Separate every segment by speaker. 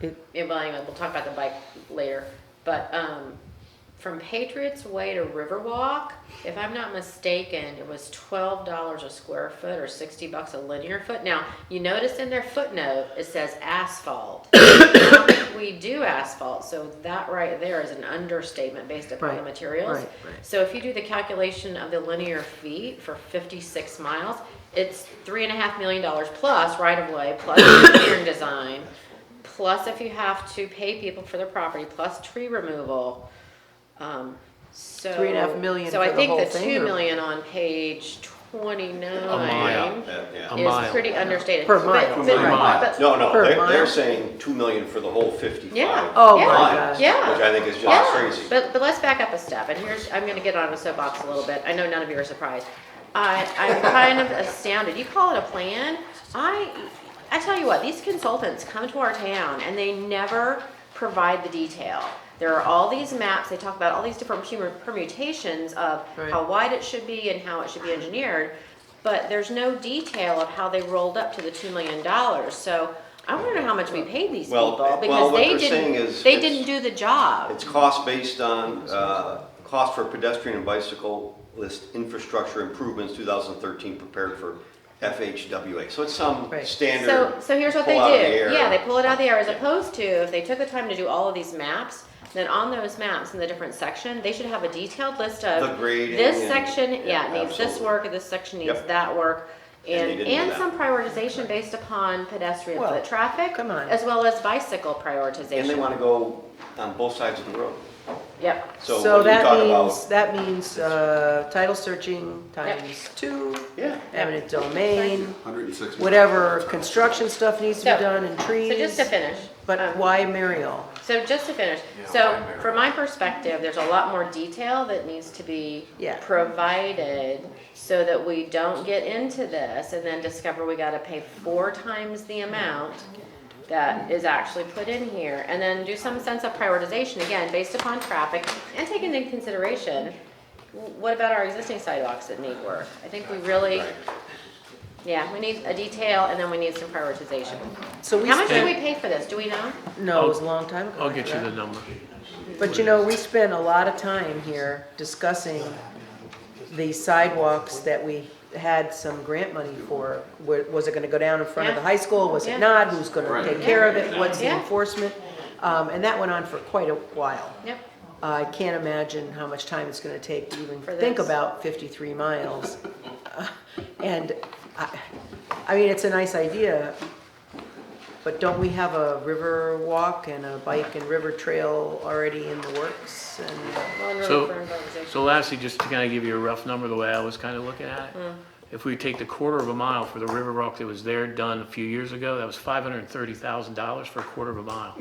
Speaker 1: It-
Speaker 2: Yeah, well, anyway, we'll talk about the bike later. But um, from Patriots Way to Riverwalk, if I'm not mistaken, it was twelve dollars a square foot or sixty bucks a linear foot. Now, you notice in their footnote, it says asphalt. Not that We do asphalt, so that right there is an understatement based upon the
Speaker 1: Right,
Speaker 2: materials.
Speaker 1: right, right.
Speaker 2: So if you do the calculation of the linear feet for fifty-six miles, it's three and a half million dollars plus right of way, plus engineering design, plus if you have to pay people for their property, plus tree removal. Um, so.
Speaker 1: Three and a half million
Speaker 2: So I
Speaker 1: for the
Speaker 2: think
Speaker 1: whole
Speaker 2: the
Speaker 1: thing,
Speaker 2: two
Speaker 1: or-
Speaker 2: million on page
Speaker 3: Yeah,
Speaker 2: twenty-nine
Speaker 3: yeah, yeah.
Speaker 1: A
Speaker 2: is
Speaker 1: mile.
Speaker 2: pretty understated.
Speaker 1: Per
Speaker 2: But-
Speaker 1: mile.
Speaker 2: but-
Speaker 3: Per
Speaker 1: mile.
Speaker 2: but-
Speaker 3: No, no,
Speaker 1: Per
Speaker 3: they're,
Speaker 1: mile?
Speaker 3: they're saying two million for the whole fifty-five.
Speaker 2: Yeah.
Speaker 1: Oh
Speaker 2: Yeah.
Speaker 1: my
Speaker 3: miles,
Speaker 1: gosh.
Speaker 2: Yeah.
Speaker 3: Which I think is just
Speaker 2: Yeah,
Speaker 3: crazy.
Speaker 2: But, but let's back up a step, and here's, I'm gonna get on a soapbox a little bit, I know none of you are surprised. I, I'm kind of astounded, you call it a plan, I, I tell you what, these consultants come to our town and they never provide the detail. There are all these maps, they talk about all these different permu- permutations of
Speaker 1: Right.
Speaker 2: how wide it should be and how it should be engineered, but there's no detail of how they rolled up to the two million dollars, so I wanna know how much we paid these
Speaker 3: Well,
Speaker 2: people,
Speaker 3: well,
Speaker 2: because
Speaker 3: what
Speaker 2: they
Speaker 3: they're saying is
Speaker 2: didn't, they
Speaker 3: it's-
Speaker 2: didn't do the job.
Speaker 3: It's cost based on, uh, cost for pedestrian and bicycle list infrastructure improvements, two thousand thirteen, prepared for FHWA. So it's some
Speaker 1: Right.
Speaker 3: standard.
Speaker 2: So, so here's what they
Speaker 3: pull out of the air.
Speaker 2: do. Yeah, they pull it out of the air as opposed to if they took the time to do all of these maps, then on those maps in the different section, they should have a detailed list of.
Speaker 3: The grading
Speaker 2: This
Speaker 3: and-
Speaker 2: section, yeah,
Speaker 3: yeah,
Speaker 2: it needs this
Speaker 3: absolutely.
Speaker 2: work, and this section needs
Speaker 3: Yep.
Speaker 2: that work.
Speaker 3: And they
Speaker 2: And,
Speaker 3: didn't do
Speaker 2: and
Speaker 3: that.
Speaker 2: some prioritization based upon pedestrian
Speaker 1: Well,
Speaker 2: foot traffic.
Speaker 1: come on.
Speaker 2: As well as bicycle prioritization.
Speaker 3: And they wanna go on both sides of the road.
Speaker 2: Yep.
Speaker 3: So
Speaker 1: So
Speaker 3: when you
Speaker 1: that
Speaker 3: talk about-
Speaker 1: means, that means, uh, title searching times two,
Speaker 3: Yeah.
Speaker 1: eminent domain,
Speaker 4: 106.
Speaker 1: whatever construction stuff needs to
Speaker 2: So-
Speaker 1: be done and trees.
Speaker 2: So just to finish.
Speaker 1: But
Speaker 2: um,
Speaker 1: why Mariel?
Speaker 2: So just to finish,
Speaker 4: Yeah,
Speaker 2: so
Speaker 4: I'm there.
Speaker 2: from my perspective, there's a lot more detail that needs to be
Speaker 1: Yeah.
Speaker 2: provided so that we don't get into this and then discover we gotta pay four times the amount that is actually put in here, and then do some sense of prioritization, again, based upon traffic and taking into consideration, w- what about our existing sidewalks that need work? I think we really, yeah, we need a detail and then we need some prioritization.
Speaker 1: So we
Speaker 2: How much did we
Speaker 1: spent,
Speaker 2: pay for this? Do we know?
Speaker 1: no, it was a long time ago.
Speaker 5: I'll get you the number.
Speaker 1: But you know, we spend a lot of time here discussing the sidewalks that we had some grant money for. Wa- Was it gonna go down in front of the
Speaker 2: Yeah.
Speaker 1: high school? Was
Speaker 2: Yeah.
Speaker 1: it not? Who's gonna
Speaker 4: Right.
Speaker 1: take care of it? What's the
Speaker 2: Yeah.
Speaker 1: enforcement? Um, and that went on for quite a while.
Speaker 2: Yep.
Speaker 1: I can't imagine how much time it's gonna take to even
Speaker 2: For
Speaker 1: think
Speaker 2: this.
Speaker 1: about fifty-three miles. Uh, And I, I mean, it's a nice idea, but don't we have a river walk and a bike and river trail already in the works? And
Speaker 2: Well, and really
Speaker 5: So-
Speaker 2: for improvisation.
Speaker 5: So lastly, just to kind of give you a rough number, the way I was kind of looking at
Speaker 2: Hmm.
Speaker 5: it, if we take the quarter of a mile for the river rock that was there done a few years ago, that was five hundred and thirty thousand dollars for a quarter of a mile.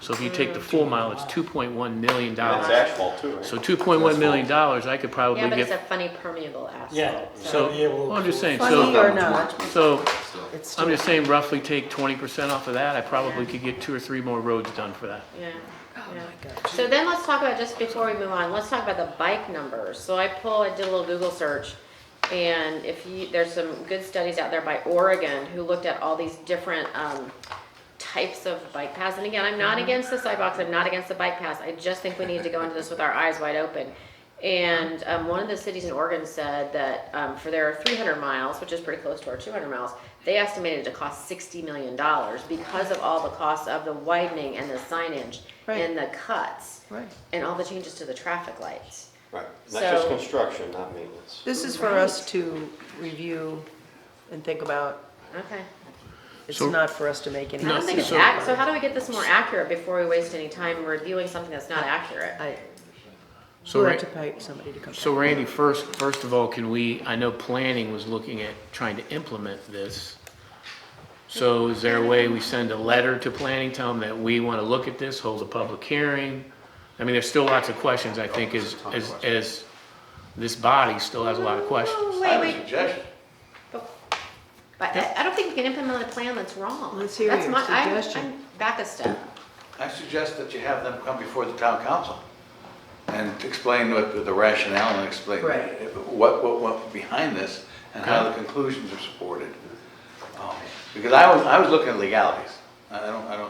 Speaker 5: So if you take the full mile, it's two point one
Speaker 3: And it's
Speaker 5: million dollars.
Speaker 3: asphalt too, right?
Speaker 5: So two point one million dollars, I could probably
Speaker 2: Yeah, but it's a
Speaker 5: get,
Speaker 2: funny permeable asphalt.
Speaker 6: Yeah,
Speaker 5: so,
Speaker 6: Yeah,
Speaker 5: well, I'm just saying,
Speaker 1: Funny
Speaker 5: so,
Speaker 1: or not,
Speaker 5: so,
Speaker 1: it's
Speaker 5: I'm
Speaker 1: still,
Speaker 5: just saying roughly take twenty percent off of that, I probably could get two or three more roads done for that.
Speaker 2: Yeah, yeah. So then let's talk about, just before we move on, let's talk about the bike numbers. So I pull, I did a little Google search, and if you, there's some good studies out there by Oregon who looked at all these different, um, types of bike paths. And again, I'm not against the sidewalks, I'm not against the bike paths, I just think we need to go into this with our eyes wide open. And, um, one of the cities in Oregon said that, um, for their three hundred miles, which is pretty close to our two hundred miles, they estimated it to cost sixty million dollars because of all the costs of the widening and the signage
Speaker 1: Right.
Speaker 2: and the cuts
Speaker 1: right.
Speaker 2: and all the changes to the traffic lights.
Speaker 3: Right, not just
Speaker 2: So-
Speaker 3: construction, not maintenance.
Speaker 1: This is for us to review and think about.
Speaker 2: Okay.
Speaker 1: It's
Speaker 5: So-
Speaker 1: not for us to make any.
Speaker 2: I don't think it's
Speaker 1: decisions.
Speaker 2: ac so how do we get this more accurate before we waste any time reviewing something that's not accurate?
Speaker 1: I,
Speaker 5: So
Speaker 1: we'll
Speaker 5: right-
Speaker 1: have to pay somebody to come.
Speaker 5: So Randy, first, first of all, can we, I know planning was looking at trying to implement this. So is there a way we send a letter to planning, tell them that we want to look at this, hold a public hearing? I mean, there's still lots of questions, I think, as, as, as this body still has a lot of questions.
Speaker 2: Oh,
Speaker 4: I
Speaker 2: Wait,
Speaker 4: have a
Speaker 2: wait,
Speaker 4: suggestion.
Speaker 2: but I, I don't think we can implement a plan that's wrong.
Speaker 1: Let's hear
Speaker 2: That's
Speaker 1: your
Speaker 2: my- I'm-
Speaker 1: suggestion.
Speaker 2: I'm Back a step.
Speaker 4: I suggest that you have them come before the town council and explain what the rationale and explain
Speaker 1: Right.
Speaker 4: what, what, what behind this and how the conclusions are supported. Um, Because I was, I was looking at legalities. I I don't, I don't